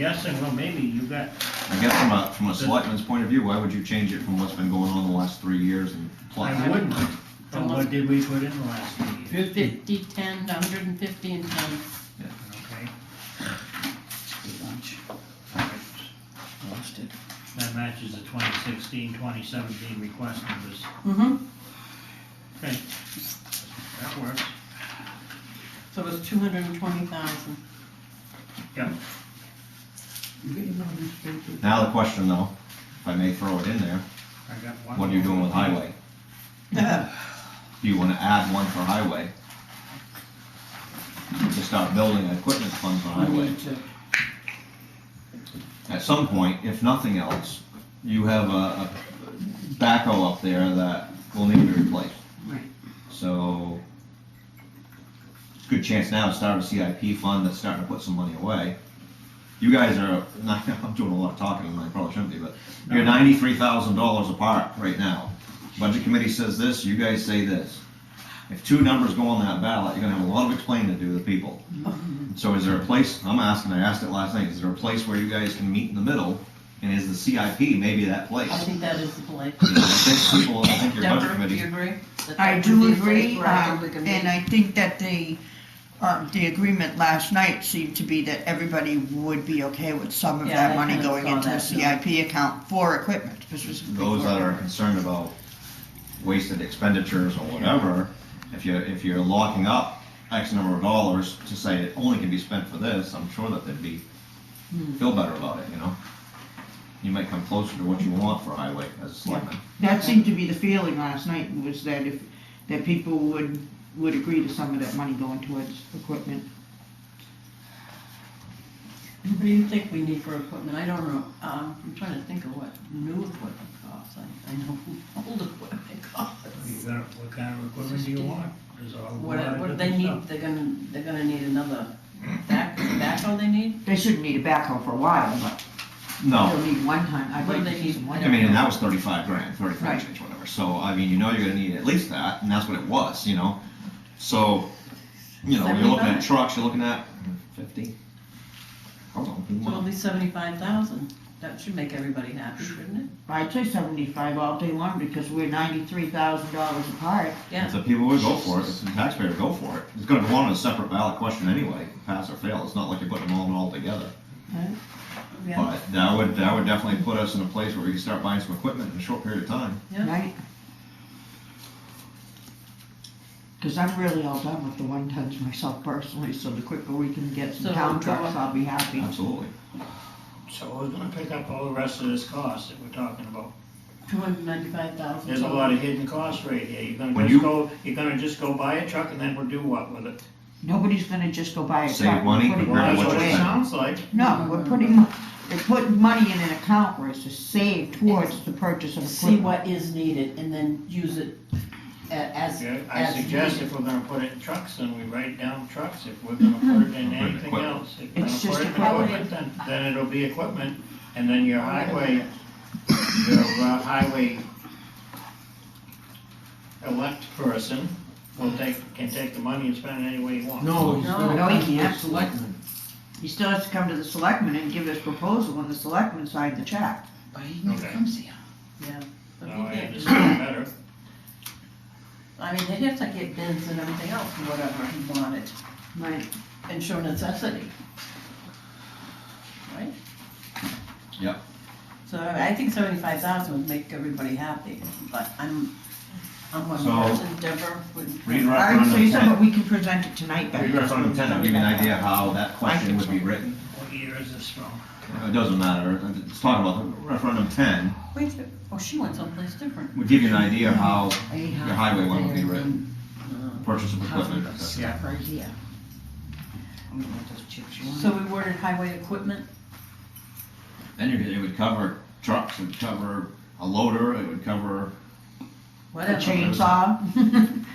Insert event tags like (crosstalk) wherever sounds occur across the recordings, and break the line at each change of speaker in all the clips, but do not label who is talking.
guessing, well, maybe you got,
I guess from a, from a selectman's point of view, why would you change it from what's been going on the last three years and plus?
I wouldn't, but what did we put in the last meeting,
Fifty, ten, hundred and fifty, and ten.
okay?
Lunch, lost it.
That matches the 2016, 2017 request numbers,
Mm-hmm.
okay? That works,
So it's two hundred and twenty thousand.
yeah,
You (laughs) get your numbers straight,
Now the question though, if I may throw it in there,
I got one.
what are you doing with highway? Do you wanna add one for highway? To start building an equipment fund for
I
highway?
need to,
At some point, if nothing else, you have a, a backhoe up there that will need to be replaced.
Right.
So, good chance now to start a CIP fund that's starting to put some money away. You guys are, (laughs) I'm doing a lot of talking, and I probably shouldn't be, but you're ninety-three thousand dollars apart right now. Budget committee says this, you guys say this. If two numbers go on that ballot, you're gonna have a lot of explaining to do to
(laughs)
people. So is there a place, I'm asking, I asked it last night, is there a place where you guys can meet in the middle? And is the CIP maybe that place?
I think that is the play.
I think people, I think your budget
Deborah, do
committee
you agree? That
I
that
do
would be a place
agree,
where I
um,
think we can
and
meet?
I think that the, um, the agreement last night seemed to be that everybody would be okay with some of
Yeah, I
that money
kinda
going
saw
into the
that, too.
CIP account for equipment, specifically
those
for
that are
equipment.
concerned about wasted expenditures or whatever, if you're, if you're locking up X number of dollars to say it only can be spent for this, I'm sure that they'd be, feel better about it, you know? You might come closer to what you want for highway as a selectman.
That seemed to be the feeling last night, was that if, that people would, would agree to some of that money going towards equipment.
What do you think we need for equipment? I don't know. Um, I'm trying to think of what new equipment costs. I, I know old equipment costs.
You got, what kind of equipment do you want? There's a whole
What,
lot of
what do they
different
need?
stuff.
They're gonna, they're gonna need another back, backhoe they need?
They shouldn't need a backhoe for a while, but
No,
they'll need one ton, I'd
Well,
like
they
to see some
need-
one.
I mean, and that was thirty-five grand,
Right.
thirty-five change, whatever, so, I mean, you know you're gonna need at least that, and that's what it was, you know? So, you know, you're looking at
75.
trucks, you're looking at fifty? Hold on.
So it'll be seventy-five thousand. That should make everybody happy, shouldn't it?
I'd say seventy-five all day long, because we're ninety-three thousand dollars apart.
Yeah.
So people would go for it, if the taxpayer would go for it. It's gonna go on as a separate ballot question anyway, pass or fail, it's not like you're putting them all in all together.
Yeah.
But that would, that would definitely put us in a place where we can start buying some equipment in a short period of time.
Yeah.
Right? Because I'm really all done with the one tons myself personally, so the quicker we can get
So
some town
we'll go
trucks, I'll be happy.
Absolutely.
So we're gonna pick up all the rest of this cost that we're talking about.
Two hundred ninety-five thousand.
There's a lot of hidden costs right here, you're gonna
When
just
you-
go, you're gonna just go buy a truck and then we'll do what with it?
Nobody's gonna just go buy a
Save
truck. and
money
put it
compared
Well,
to
that's
what
away.
what
you're
it
spending.
sounds like.
No, we're putting, we're putting money in an account where it's to save towards the purchase of
see
equipment.
what is needed and then use it a- as,
Yeah, I
as
suggest
needed.
if we're gonna put it in trucks, then we write down trucks, if we're gonna put it in
Equipment,
anything
equipment.
else. If we're
It's
gonna put
just
it in
equipment.
Then, then it'll be equipment, and then your highway, your uh, highway elect person will take, can take the money and spend it any way he wants.
no, he's
No,
gonna
no,
come
he
to the
can't.
selectmen.
He still has to come to the selectmen and give his proposal, and the selectmen sign the check.
But he never
Okay.
comes here.
But
Now
we
I
can't do
understand
that.
better.
I mean, they'd have to get bids and everything else, and whatever he wanted,
Right.
and show necessity. Right?
Yep.
So I I think seventy-five thousand would make everybody happy, but I'm, I'm one
So-
person, Deborah would.
Read
All right, so
referendum
you said,
ten,
but we can present it tonight, but.
read referendum ten, I'll give you an idea how that question would be written.
What year is this from?
It doesn't matter, it's talking about the referendum ten,
Wait, a- oh, she went someplace different.
would give you an idea how your highway one would be written,
Uh,
purchase of equipment.
Yeah.
Stuff right here. I'm gonna let those chips you want.
So we ordered highway equipment,
Then you- it would cover trucks, it would cover a loader, it would cover
A
whatever.
chainsaw. (laughs)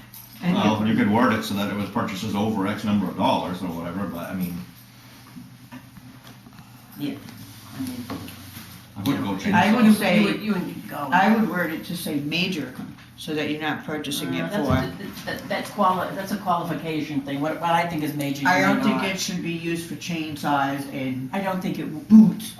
And
Well, you could word it so that it was purchases over X number of dollars or whatever, but I mean,
I mean,
I wouldn't go change.
I
you-
would
you
say-
You would go.
I would word it to say major, com-
so that you're not purchasing it
Oh, That's
for.
a- That, that quali, that's a qualification thing, what, what I think is major, you
I
may
don't think
not.
it should be used for chainsaws and
I don't think it
boots